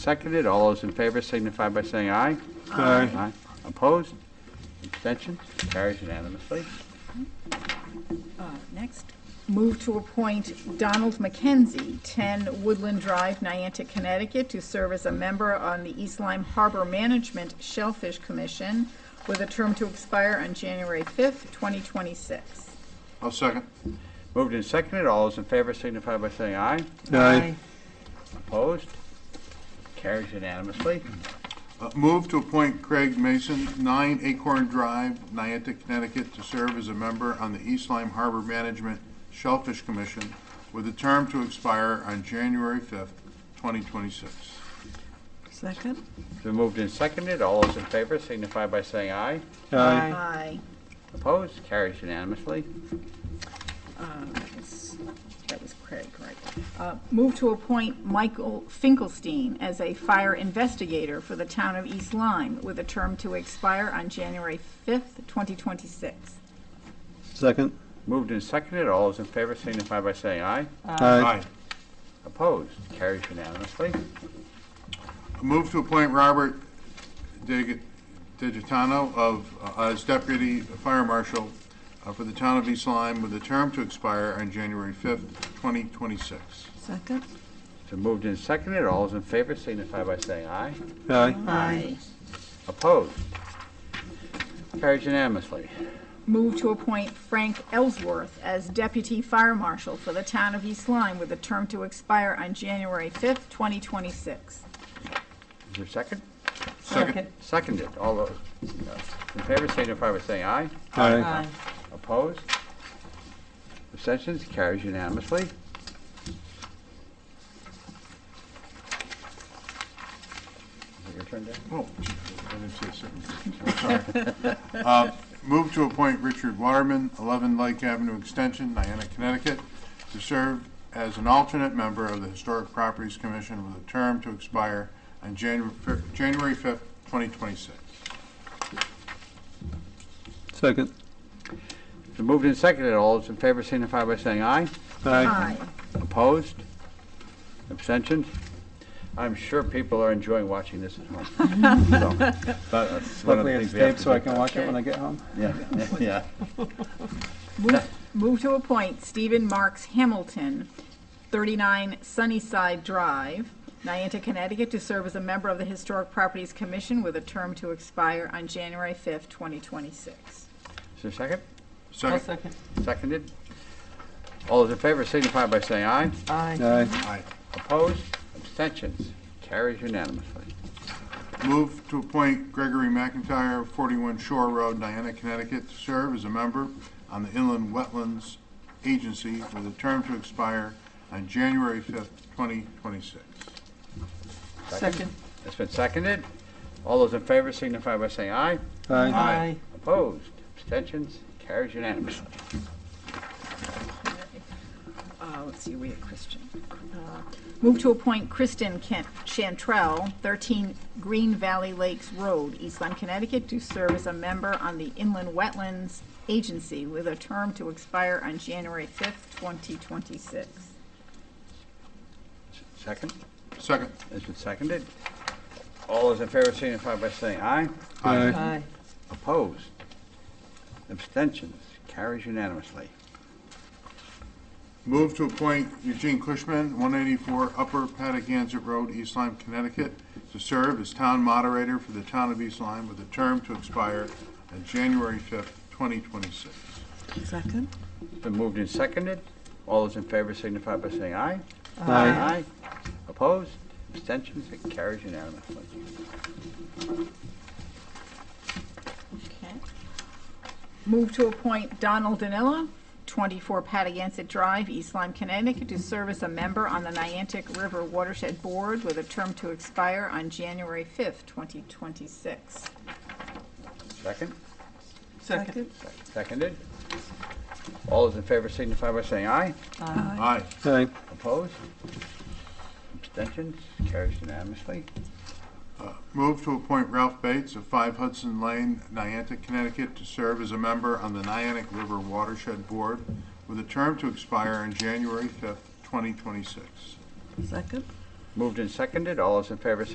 Seconded, all those in favor signify by saying aye. Aye. Opposed? Abstentions? Carries unanimously. Uh, Next, move to appoint Donald McKenzie, 10 Woodland Drive, Niantic, Connecticut, to serve as a member on the East Lyme Harbor Management Shellfish Commission with a term to expire on January 5th, 2026. I'll second. Moved and seconded, all those in favor signify by saying aye. Aye. Opposed? Carries unanimously. Uh, Move to appoint Craig Mason, 9 Acorn Drive, Niantic, Connecticut, to serve as a member on the East Lyme Harbor Management Shellfish Commission with a term to expire on January 5th, 2026. Second? It's been moved and seconded, all those in favor signify by saying aye. Aye. Aye. Opposed? Carries unanimously. Yes, That was Craig, right. Uh, Move to appoint Michael Finkelstein as a fire investigator for the town of East Lyme with a term to expire on January 5th, 2026. Second. Moved and seconded, all those in favor signify by saying aye. Aye. Opposed? Carries unanimously. Move to appoint Robert Dig- Digitano of, uh, as Deputy Fire Marshal uh, for the town of East Lyme with a term to expire on January 5th, 2026. Second? So moved and seconded, all those in favor signify by saying aye. Aye. Aye. Opposed? Carries unanimously. Move to appoint Frank Ellsworth as Deputy Fire Marshal for the town of East Lyme with a term to expire on January 5th, 2026. Is there a second? Second. Seconded, all those uh, in favor signify by saying aye. Aye. Opposed? Abstentions? Carries unanimously. Is it your turn, Dan? Oh, I didn't see a second. Uh, Move to appoint Richard Waterman, 11 Lake Avenue Extension, Niantic, Connecticut, to serve as an alternate member of the Historic Properties Commission with a term to expire on Janu- Fe- January 5th, 2026. Second. It's been moved and seconded, all those in favor signify by saying aye. Aye. Opposed? Abstentions? I'm sure people are enjoying watching this at home. So, but that's one of the Luckily it's things we have taped, to so I do. can watch it when I get home. Yeah, yeah. Move- Move to appoint Stephen Marks Hamilton, 39 Sunnyside Drive, Niantic, Connecticut, to serve as a member of the Historic Properties Commission with a term to expire on January 5th, 2026. Is there a second? Second. Seconded? All those in favor signify by saying aye. Aye. Aye. Aye. Opposed? Abstentions? Carries unanimously. Move to appoint Gregory McIntyre, 41 Shore Road, Diana, Connecticut, to serve as a member on the Inland Wetlands Agency with a term to expire on January 5th, 2026. Second? It's been seconded. All those in favor signify by saying aye. Aye. Aye. Opposed? Abstentions? Carries unanimously. Uh, let's see, we had Christian. Uh, Move to appoint Kristen Kent Chantrell, 13 Green Valley Lakes Road, East Lyme, Connecticut, to serve as a member on the Inland Wetlands Agency with a term to expire on January 5th, 2026. Second? Second. It's been seconded. All those in favor signify by saying aye. Aye. Aye. Opposed? Abstentions? Carries unanimously. Move to appoint Eugene Cushman, 184 Upper Patagonia Road, East Lyme, Connecticut, to serve as town moderator for the town of East Lyme with a term to expire on January 5th, 2026. Second? It's been moved and seconded. All those in favor signify by saying aye. Aye. Opposed? Abstentions? It carries unanimously. Okay. Move to appoint Donald Danilla, 24 Patagonia Drive, East Lyme, Connecticut, to serve as a member on the Niantic River Watershed Board with a term to expire on January 5th, 2026. Second? Second? Seconded. All those in favor signify by saying aye. Aye. Aye. Opposed? Abstentions? Carries unanimously. Move to appoint Ralph Bates of 5 Hudson Lane, Niantic, Connecticut, to serve as a member on the Niantic River Watershed Board with a term to expire on January 5th, 2026. Second? Moved and seconded. All those in favor